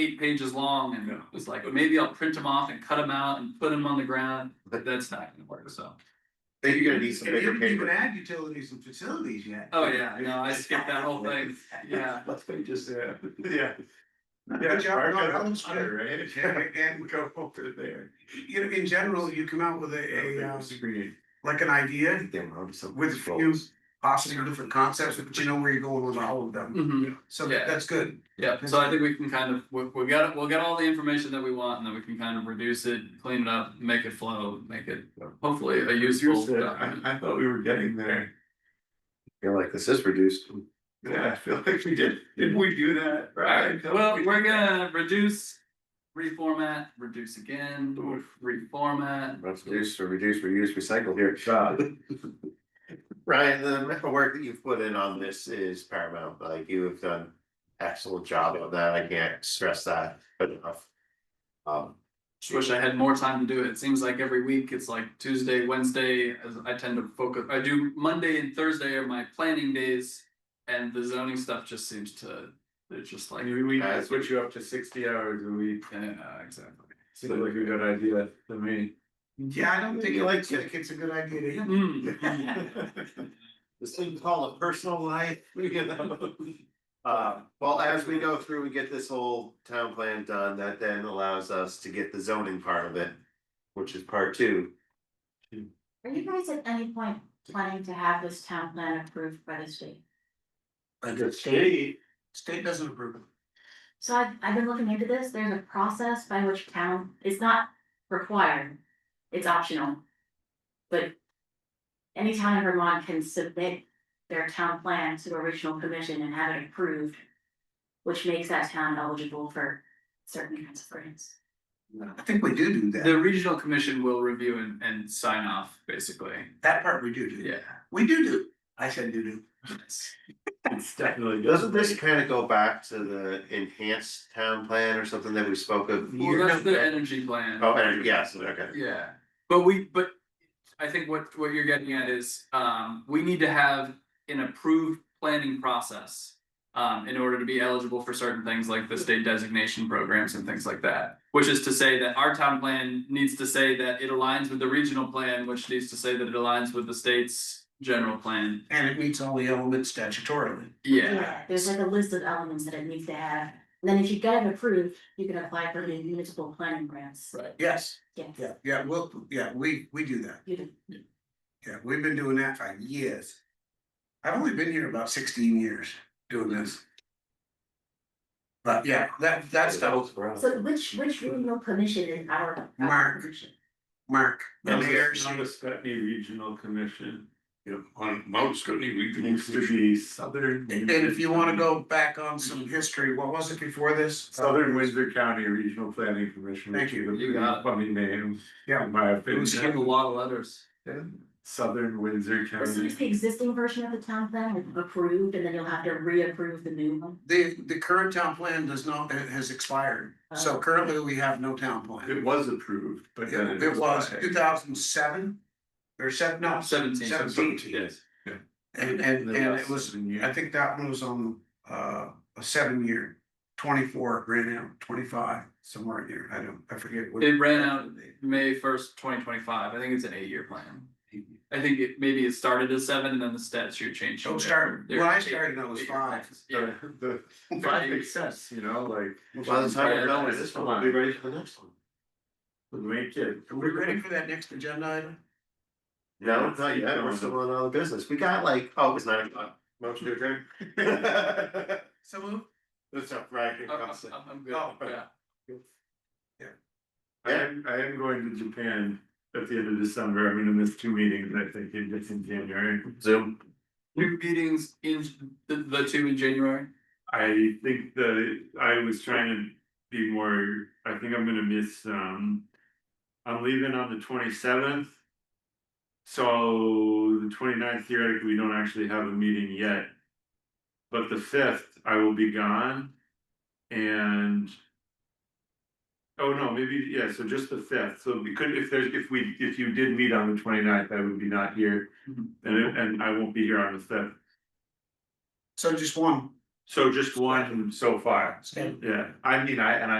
eight pages long and Yeah. was like, maybe I'll print them off and cut them out and put them on the ground. But that's not gonna work, so. Then you're gonna need some And you bigger didn't even paper. add utilities and facilities yet. Oh, yeah, no, I skipped that whole thing. Yeah. Let's be just there. Yeah. Yeah, Mark, I don't- I don't- right? And, and, Go over there. you know, in general, you come out with a, a, uh, like an idea Damn, I'm so. with a few possibly different concepts, but you know where you're going with all of them. Mhm. So Yeah. that's good. Yeah, so I think we can kind of, we, we got, we'll get all the information that we want and then we can kind of reduce it, clean it up, make it flow, make it hopefully a useful uh, Here's the, I, document. I thought we were getting there. You're like, this is reduced. Yeah, I feel like we did. Didn't we do that? Alright, Right. well, we're gonna reduce, reformat, reduce again, reformat. Reduce, reduce, reuse, recycle here. God. Ryan, the amount of work that you've put in on this is paramount, like you have done excellent job on that, I can't stress that enough. Um, Just wish I had more time to do it. It seems like every week, it's like Tuesday, Wednesday, as I tend to focus, I do Monday and Thursday are my planning days. And the zoning stuff just seems to, it's just like, We, we That's- switch you up to sixty hours a week. yeah, exactly. Seems like a good idea to me. Yeah, I don't think it like, it's a good idea to him. Mm, this thing called a personal life, you know? Uh, well, as we go through, we get this whole town plan done, that then allows us to get the zoning part of it, which is part two. Are you guys at any point planning to have this town plan approved by the state? State doesn't approve it. So I've, I've been looking into this, there's a process by which town, it's not required, it's optional. But any town in Vermont can submit their town plan to a regional commission and have it approved, which makes that town eligible for certain kinds of grants. I think we do do The that. regional commission will review and, and sign off, basically. That part we do do. Yeah. We do do. I said do do. Nice. It's definitely. Doesn't this kind of go back to the enhanced town plan or something that we spoke of? Well, that's the energy plan. Oh, and yes, okay. Yeah, but we, but I think what what you're getting at is, um, we need to have an approved planning process. Um, in order to be eligible for certain things like the state designation programs and things like that. Which is to say that our town plan needs to say that it aligns with the regional plan, which needs to say that it aligns with the state's general plan. And it meets all the elements statutorily. Yeah, There's like a list of elements that it needs to have, and then if you get it approved, you can apply for the municipal planning grants, right. Yes, yes. yeah, yeah, we'll, yeah, we, we do that. You do. Yeah, we've been doing that for years. I've only been here about sixteen years doing this. But yeah, that that's the So which which regional commission is our our Mark. commission? mark. Not the Mayor's- not the Scotty Regional Commission. on Mount Scotty Regional Needs to District. be Southern. And if you wanna go back on some history, what was it before this? Southern Windsor County Regional Planning Commission. Thank which is you. a You got it. Funny name. Yeah. In my We have a opinion. lot of letters. Southern Windsor This is the County. existing version of the town plan like, approved and then you'll have to reapprove the new one. The the current town plan does not, it has expired, so currently we have no town plan. It was approved, but then It it. it was expired. two thousand seven or seven, no, Seventeen. seventeen, Yes. and and The and it last was seven years. I think that one was on uh a seven year, twenty four, ran out, twenty five, somewhere in here, I don't, I forget. what- It ran out May first, twenty twenty five, I think it's an eight year plan. I think it maybe it started as seven and then the statute changed. Don't start, They're- when I started, I was eight-year five. plans. Yeah, The, the, that makes sense, you know, like. By the time we're done with this one, we'll be We're ready for the next one. ready. Are we ready for that next agenda item? No, not yet, we're still on all the business, we got like, oh, it's nine o'clock. Motion to adjourn. So moved. That's up, right? here I'm, comes it. I'm- I'm good, Oh, yeah. I am, I am going to Japan at the end of December, I'm gonna miss two meetings, I think, in just in January. Zoom. New meetings in the, the two in January, I think that I was trying to be more, I think I'm gonna miss, um. I'm leaving on the twenty seventh. So the 29th theoretically, we don't actually have a meeting yet. But the fifth, I will be gone. And. Oh, no, maybe, yeah, so just the fifth, so we could, if there's, if we, if you did meet on the 29th, I would be not here. Mhm. And and I won't be here on the fifth, So just one, So just one so far, Stand- yeah, I mean, I, and I